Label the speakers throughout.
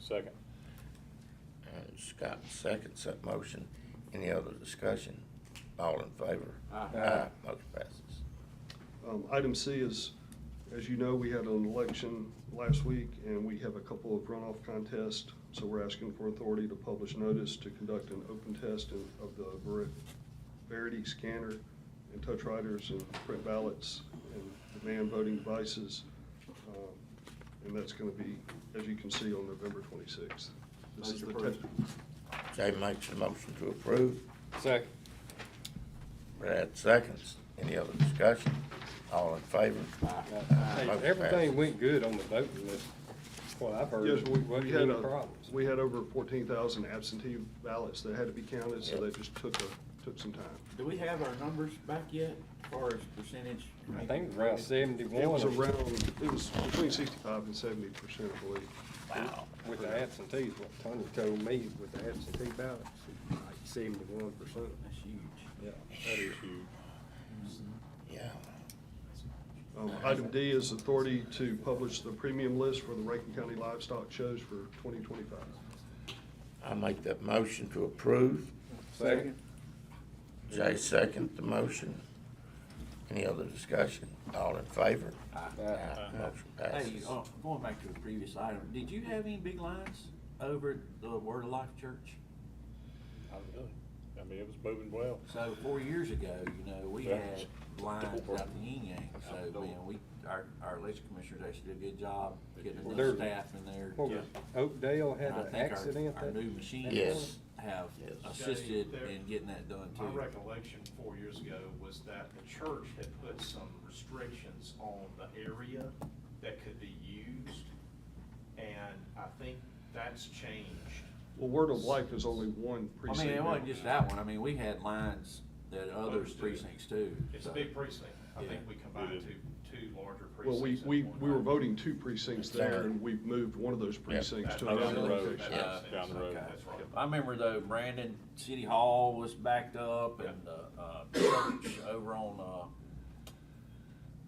Speaker 1: Second.
Speaker 2: Uh, Scott seconds that motion. Any other discussion? All in favor?
Speaker 1: Aye.
Speaker 2: Motion passes.
Speaker 3: Um, Item C is, as you know, we had an election last week, and we have a couple of runoff contests, so we're asking for authority to publish notice to conduct an open test in- of the Ver- Verity scanner and touch writers and print ballots and demand voting devices. Um, And that's going to be, as you can see, on November 26th. This is the
Speaker 1: Motion approved.
Speaker 3: tech-
Speaker 2: Jay makes a motion to approve.
Speaker 1: Second.
Speaker 2: Brad seconds. Any other discussion? All in favor? Aye.
Speaker 1: Hey,
Speaker 2: Motion
Speaker 1: Everything
Speaker 2: passes.
Speaker 1: went good on the voting list, what I've heard.
Speaker 3: Yes, we, we
Speaker 1: Wasn't
Speaker 3: had,
Speaker 1: any
Speaker 3: a-
Speaker 1: problems.
Speaker 3: we had over fourteen thousand absentee ballots that had to be counted, so
Speaker 2: Yep.
Speaker 3: that just took a, took some time.
Speaker 4: Do we have our numbers back yet, as far as percentage?
Speaker 1: I think it was around seventy-one.
Speaker 3: It was
Speaker 1: or
Speaker 3: around, it was between sixty-five and seventy percent, I believe.
Speaker 2: Wow.
Speaker 1: With the absentees, what Tony told me with the absentee ballots, like seventy-one percent.
Speaker 4: That's huge.
Speaker 1: Yeah, that is huge.
Speaker 2: Yeah.
Speaker 3: Um, item D is authority to publish the premium list for the Rankin County Livestock Shows for twenty twenty-five.
Speaker 2: I make that motion to approve.
Speaker 1: Second.
Speaker 2: Jay seconds the motion. Any other discussion? All in favor? Aye. Motion
Speaker 4: Hey,
Speaker 2: passes.
Speaker 4: uh, going back to the previous item, did you have any big lines over at the Word of Life Church?
Speaker 1: I mean, it was moving well.
Speaker 4: So four years ago, you know, we
Speaker 1: Yeah.
Speaker 4: had lines out the yin yang,
Speaker 1: Out the
Speaker 4: so, man,
Speaker 1: door.
Speaker 4: we, our, our election commissioners actually did a good job getting
Speaker 1: Well,
Speaker 4: enough
Speaker 1: there's-
Speaker 4: staff in there.
Speaker 1: What was, Oakdale had
Speaker 4: And I
Speaker 1: an
Speaker 4: think our-
Speaker 1: accident
Speaker 4: Our
Speaker 1: that?
Speaker 4: new machines
Speaker 2: Yes.
Speaker 4: have
Speaker 2: Yes.
Speaker 4: assisted
Speaker 5: Jay, there-
Speaker 4: in getting that done too.
Speaker 5: My recollection four years ago was that the church had put some restrictions on the area that could be used, and I think that's changed.
Speaker 3: Well, Word of Life is only one
Speaker 4: I
Speaker 3: precinct.
Speaker 4: mean, it wasn't
Speaker 3: now.
Speaker 4: just that one, I mean, we had lines that other
Speaker 5: Others do.
Speaker 4: precincts too.
Speaker 5: It's a
Speaker 4: so-
Speaker 5: big precinct. I think
Speaker 4: Yeah.
Speaker 5: we
Speaker 1: It
Speaker 5: combined
Speaker 1: is.
Speaker 5: two, two larger
Speaker 3: Well, we,
Speaker 5: precincts.
Speaker 3: we,
Speaker 5: in one.
Speaker 3: we were voting two precincts there, and we've moved one of those precincts
Speaker 5: That-
Speaker 3: to
Speaker 1: Down the
Speaker 3: another
Speaker 1: road.
Speaker 3: location.
Speaker 5: that
Speaker 4: Yeah,
Speaker 5: makes
Speaker 1: down the
Speaker 5: sense.
Speaker 1: road.
Speaker 4: Okay.
Speaker 5: That's right.
Speaker 4: I remember though, Brandon, City Hall was backed up and, uh, uh, church over on,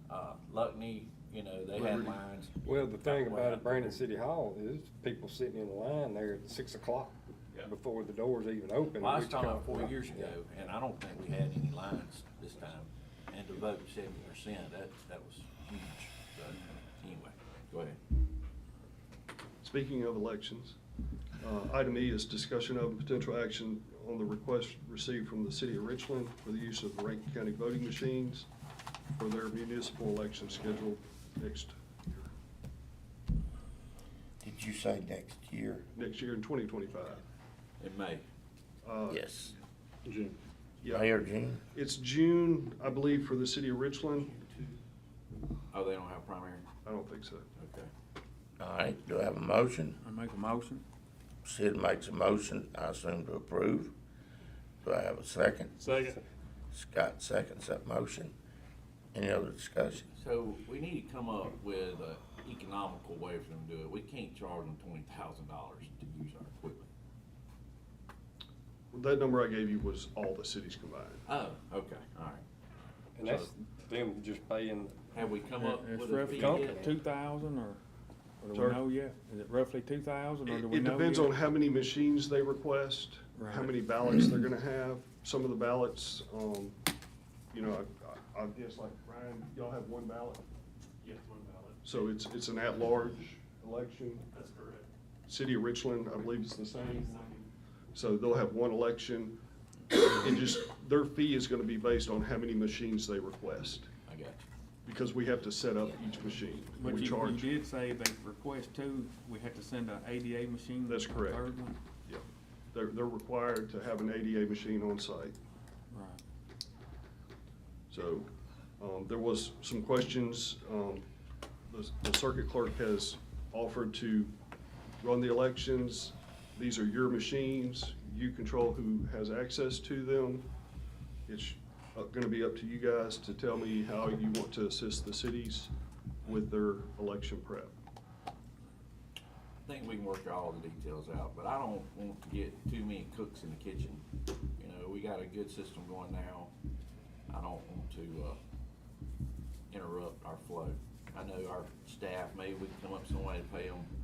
Speaker 4: uh, uh, Luckney, you know, they had
Speaker 3: Liberty.
Speaker 4: lines.
Speaker 1: Well, the thing
Speaker 4: Way
Speaker 1: about
Speaker 4: up
Speaker 1: it, Brandon City Hall is people sitting in line there at six o'clock
Speaker 5: Yeah.
Speaker 1: before the doors even open.
Speaker 4: Well, I was
Speaker 1: which
Speaker 4: talking
Speaker 1: kind
Speaker 4: about four
Speaker 1: of-
Speaker 4: years ago, and I don't think we had any lines this time, and to vote seventy percent, that, that was huge, so, anyway, go ahead.
Speaker 3: Speaking of elections, uh, item E is discussion of and potential action on the request received from the city of Richland for the use of Rankin County voting machines for their municipal election scheduled next,
Speaker 2: Did you say next year?
Speaker 3: next year in 2025.
Speaker 4: In May.
Speaker 3: Uh,
Speaker 2: Yes.
Speaker 3: Yeah,
Speaker 2: Mayor Jean?
Speaker 3: it's June, I believe, for the city of Richland.
Speaker 4: Oh, they don't have primary?
Speaker 3: I don't think so.
Speaker 4: Okay.
Speaker 2: All right, do I have a motion?
Speaker 4: I make a motion?
Speaker 2: Sid makes a motion, I assume to approve. Do I have a second?
Speaker 1: Second.
Speaker 2: Scott seconds that motion. Any other discussion?
Speaker 4: So we need to come up with an economical way for them to do it. We can't charge them twenty thousand dollars to use our equipment.
Speaker 3: That number I gave you was all the cities combined.
Speaker 4: Oh, okay, all right.
Speaker 1: And that's them just paying
Speaker 4: Have we come up
Speaker 6: It's
Speaker 4: with a
Speaker 6: roughly
Speaker 4: fee
Speaker 6: two
Speaker 4: yet?
Speaker 6: thousand or, or do
Speaker 3: Sorry?
Speaker 6: we know yet? Is it roughly two thousand or do
Speaker 3: It
Speaker 6: we
Speaker 3: it
Speaker 6: know
Speaker 3: depends
Speaker 6: yet?
Speaker 3: on how many machines they request, how
Speaker 6: Right.
Speaker 3: many ballots they're gonna have. Some of the ballots, um, you know, I- I, I guess like Ryan, y'all have one ballot.
Speaker 5: Yeah, one ballot.
Speaker 3: So it's, it's an at-large election.
Speaker 5: That's correct.
Speaker 3: City of Richland, I believe is the same. So they'll have one election. And just, their fee is gonna be based on how many machines they request,
Speaker 4: I got you.
Speaker 3: because we have to set up each machine.
Speaker 6: But
Speaker 3: We
Speaker 6: you, you
Speaker 3: charge.
Speaker 6: did say they request two, we have to send an ADA machine.
Speaker 3: That's
Speaker 6: a
Speaker 3: correct.
Speaker 6: Third one?
Speaker 3: Yeah. They're, they're required to have an ADA machine on site.
Speaker 6: Right.
Speaker 3: So, um, there was some questions, um, the, the circuit clerk has offered to run the elections. These are your machines, you control who has access to them. It's uh, gonna be up to you guys to tell me how you want to assist the cities with their election prep.
Speaker 4: I think we can work all the details out, but I don't want to get too many cooks in the kitchen. You know, we got a good system going now. I don't want to, uh, interrupt our flow. I know our staff, maybe we can come up with some way to pay them